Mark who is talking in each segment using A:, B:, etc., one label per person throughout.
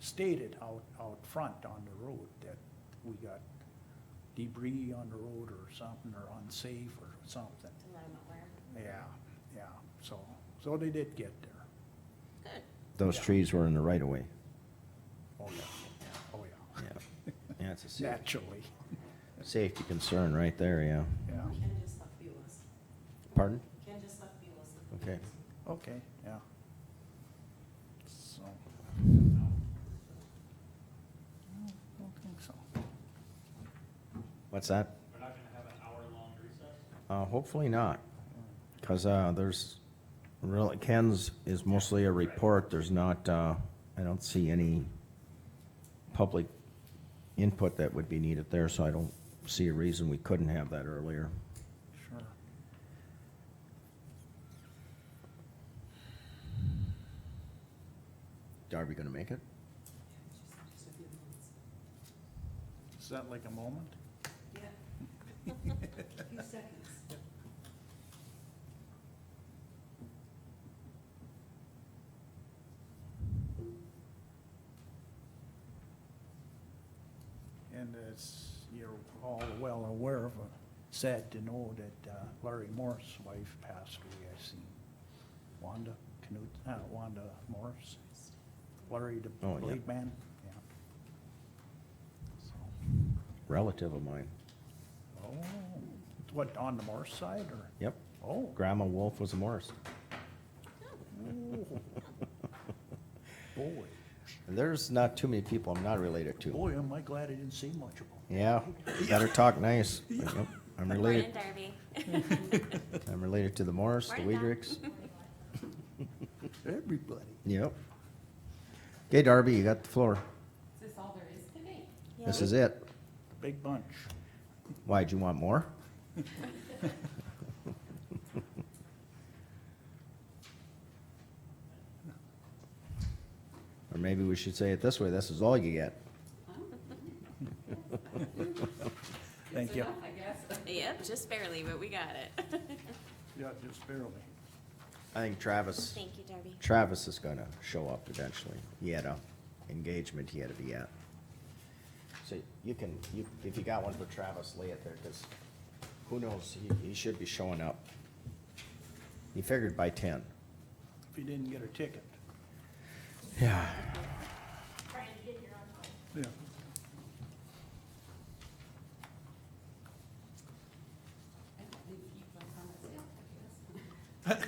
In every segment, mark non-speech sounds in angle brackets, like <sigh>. A: stated out, out front on the road that we got debris on the road or something, or unsafe or something.
B: to let them aware.
A: Yeah, yeah, so, so they did get there.
B: Good.
C: Those
A: Yeah.
C: trees were in the right of way.
A: Oh, yeah, oh, yeah,
C: Yeah. <laughs> Yeah, it's a safety,
A: naturally,
C: safety concern right there, yeah.
A: yeah,
B: Ken just left Beulah's.
C: Pardon?
B: Ken just left Beulah's.
C: Okay.
A: okay, yeah. So. I don't think so.
C: What's that?
D: We're not gonna have an hour-long recess?
C: Uh, hopefully not, because, uh, there's really, Ken's is mostly a report. There's not, uh, I don't see any public input that would be needed there, so I don't see a reason we couldn't have that earlier.
A: Sure.
C: Are we gonna make it?
A: Is that like a moment?
B: Yeah. <laughs> A few seconds.
A: And as you're all well aware of, uh, sad to know that uh, Larry Morris' wife passed away. I seen Wanda Knut, uh, Wanda Morris, Larry the
C: Oh, yeah.
A: blade man, yeah. So,
C: Relative of mine.
A: Oh, what, on the Morris side or?
C: Yep.
A: Oh.
C: Grandma Wolf was a Morris.
A: ooh. <laughs> Boy,
C: There's not too many people I'm not related to.
A: boy, am I glad I didn't see much of him.
C: Yeah, better talk nice. Yep, I'm
B: Morning,
C: related,
B: Darby.
C: I'm related to the Morris, the
B: Morning, Doc.
C: Weidrichs.
A: Everybody.
C: Yep. Okay, Darby, you got the floor.
B: Is this all there is today?
C: This is it.
A: Big bunch.
C: Why'd you want more? <laughs> Or maybe we should say it this way, this is all you get.
A: Thank you.
B: I guess. Yep, just barely, but we got it. <laughs>
A: Yeah, just barely.
C: I think Travis,
B: Thank you, Darby.
C: Travis is gonna show up eventually. He had a engagement he had to be at. So you can, you, if you got one for Travis, lay it there, cause who knows, he, he should be showing up. He figured by ten.
A: If you didn't get a ticket.
C: Yeah.
A: Yeah.
B: I don't think you put on it, yeah, I guess.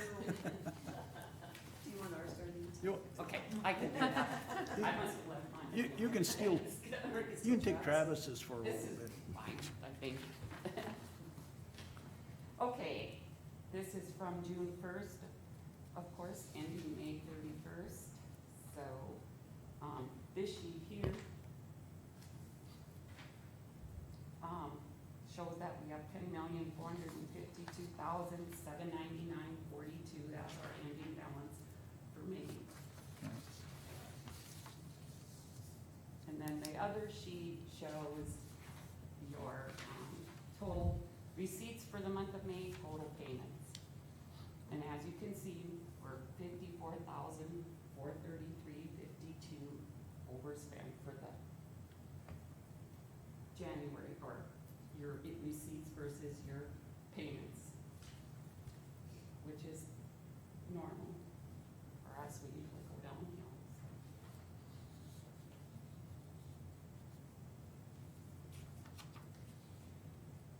B: <laughs> Do you want ours, Darby?
A: You,
E: Okay, I
B: <laughs>
E: can do that. I must have left mine.
A: you, you can steal, you can take Travis's for a little
E: This is
A: bit.
E: fine, I think. <laughs> Okay, this is from June first, of course, ending May thirty-first, so, um, this sheet here um, shows that we have ten million, four hundred and fifty-two thousand, seven ninety-nine, forty-two, that's our ending balance for May. And then the other sheet shows your um, total receipts for the month of May, total payments. And as you can see, we're fifty-four thousand, four thirty-three, fifty-two overspent for the January, or your i- receipts versus your payments, which is normal. For us, we usually go downhill, so.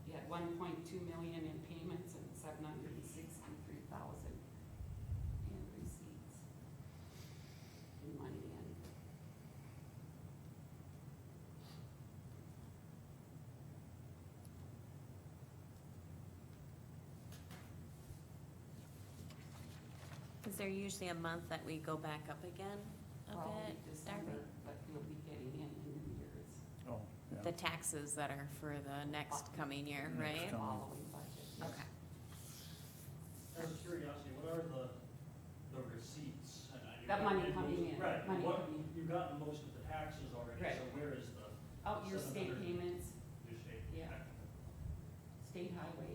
E: You had one point two million in payments and seven hundred and sixty-three thousand in receipts. In money in.
B: Is there usually a month that we go back up again a
E: Probably
B: bit, Darby?
E: December, but you'll be getting in in New Year's,
A: Oh,
B: The
A: yeah.
B: taxes that are for the next coming year,
A: Next
B: right?
A: time.
E: following budget.
B: Okay.
D: Out of curiosity, what are the, the receipts? And I-
E: That money coming in,
D: Right,
E: money
D: what,
E: coming in.
D: you've gotten most of the taxes already,
E: Right.
D: so where is the,
E: Out Oh, your
D: Seven
E: state
D: hundred.
E: payments,
D: your state?
E: Yeah. state highway,